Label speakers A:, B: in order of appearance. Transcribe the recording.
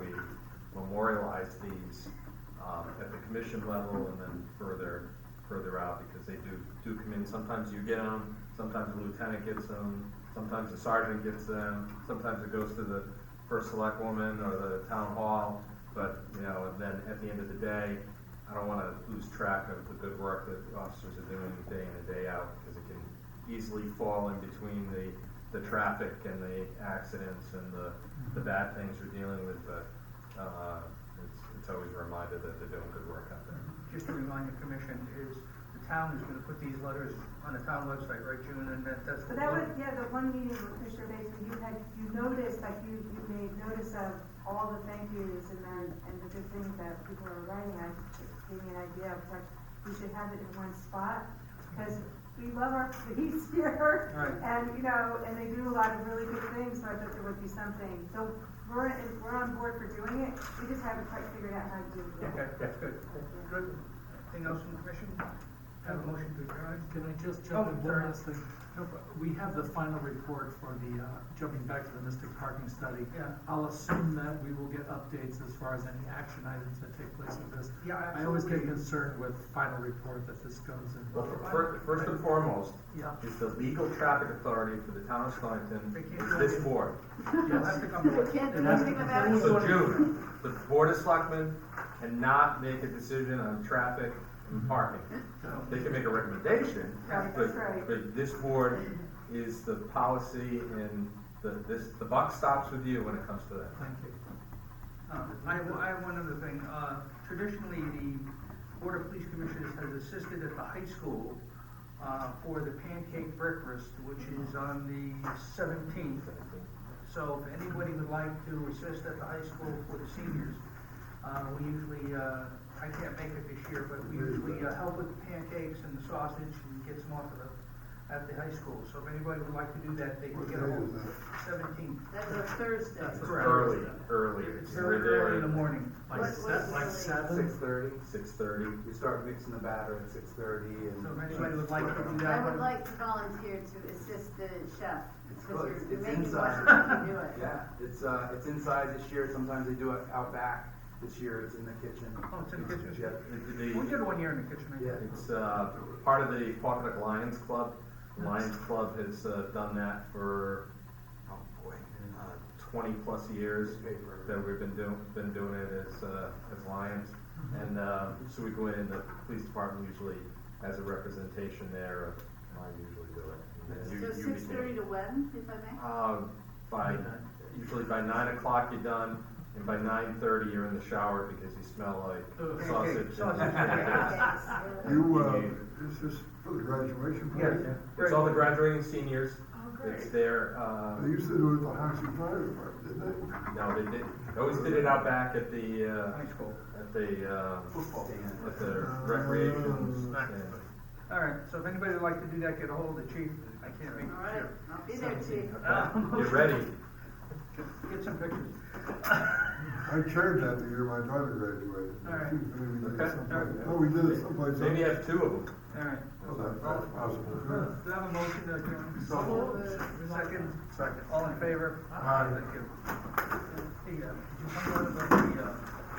A: we memorialize these um, at the commission level and then further, further out, because they do, do come in, sometimes you get them, sometimes the lieutenant gets them, sometimes the sergeant gets them, sometimes it goes to the first select woman or the town hall, but, you know, and then at the end of the day, I don't wanna lose track of the good work that the officers are doing day in and day out, because it can easily fall in between the, the traffic and the accidents and the, the bad things we're dealing with, but, uh, it's, it's always a reminder that they're doing good work out there.
B: Just to remind the commission, is the town is gonna put these letters on the town website, right, June, and that, that's
C: So
B: what.
C: that was,
B: we're-
C: yeah, the one meeting with Commissioner Basin, you had, you noticed, like, you, you made notice of all the thank yous and then, and the good things that people are writing, I, it gave me an idea of, like, we should have it in one spot, because we love our police here.
B: Right.
C: And, you know, and they do a lot of really good things, so I thought there would be something, so we're, in- we're on board for doing it, we just haven't quite figured out how to do it yet.
B: Okay, that's good, good. Anything else from the commission? Have a motion to adjourn?
D: Can I just
B: Oh,
D: jump in
B: sorry.
D: one last thing? No, but We have the final report for the, uh, jumping back to the Mystic Parking Study.
B: Yeah.
D: I'll assume that we will get updates as far as any action items that take place with this.
B: Yeah,
D: I always get
B: absolutely.
D: concerned with final report that this goes in.
A: Well, fir- first and foremost,
D: Yeah.
A: is the legal traffic authority for the town of Stonington,
B: They can't do
A: is this
B: it.
A: board.
B: You'll have to come
C: We
B: back.
C: can't do anything about it.
A: So June, the board of selectmen cannot make a decision on traffic and parking. They can make a recommendation,
C: Right, that's right.
A: but, but this board is the policy and the, this, the buck stops with you when it comes to that.
D: Thank you.
B: Um, I have, I have one other thing, uh, traditionally, the Board of Police Commissioners has assisted at the high school, uh, for the pancake breakfast, which is on the seventeenth. So if anybody would like to assist at the high school for the seniors, uh, we usually, uh, I can't make it this year, but we usually uh, help with the pancakes and the sausage and get some off of the, at the high school. So if anybody would like to do that, they can get a hold Seventeenth.
E: That's a Thursday.
D: That's a-
B: Correct.
A: Early, early.
B: It's very early in the morning.
D: Like
E: What-
D: se-
E: what-
D: like
B: Oh.
F: Six
D: seven?
F: thirty,
A: Six thirty.
F: we start mixing the batter at six thirty and.
B: So if anybody would like to do that.
E: I would like to volunteer to assist the chef,
F: Well,
E: because
F: it's,
E: you're
F: it's
E: making me
F: inside.
E: do it.
F: Yeah, it's, uh, it's inside this year, sometimes they do it out back, this year it's in the kitchen.
B: Oh, it's in the kitchen.
F: Yep.
A: It-
B: We
A: it-
B: did one year in the kitchen, I
F: Yeah.
B: think.
A: It's uh, part of the Pocketuck Lions Club. Lions Club has uh, done that for, oh boy, uh, twenty plus years that we've been doing, been doing it as, uh, as Lions.
E: Mm-hmm.
A: And uh, so we go in, and the police department usually has a representation there of, I usually do it. And you-
E: So
A: you
E: six thirty
A: begin.
E: to when, if I may?
A: Uh, By, usually by nine o'clock you're done, and by nine thirty you're in the shower because you smell
B: Okay,
A: like
B: okay,
A: sausage.
B: sausage.
G: You, uh, is this for the graduation party?
B: Yeah.
A: It's all the graduating seniors.
C: Oh,
A: It's their, uh,
G: They used to do it at the House and Fire Department, didn't they?
A: no, they did, they always did it out back at the, uh,
B: High school.
A: at the, um
F: Football. Stand.
A: at the recreation
G: Uh,
A: stand.
B: All right, so if anybody would like to do that, get a hold of the chief. I can't make
E: All right,
B: it.
E: I'll be there too.
B: Uh,
A: Okay, Get ready.
B: Get some pictures.
G: I chaired that the year my daughter graduated.
B: All right.
G: Maybe we did it
A: Okay.
G: someplace. Oh, we did it someplace.
A: Maybe
G: else.
A: have two of them.
B: All right.
G: Well, that- That's possible. too.
B: Do I have a motion to adjourn?
F: So moved.
B: Second? Second. All in favor?
F: Aye.
B: Thank you. Hey, uh, did you come over to the, uh,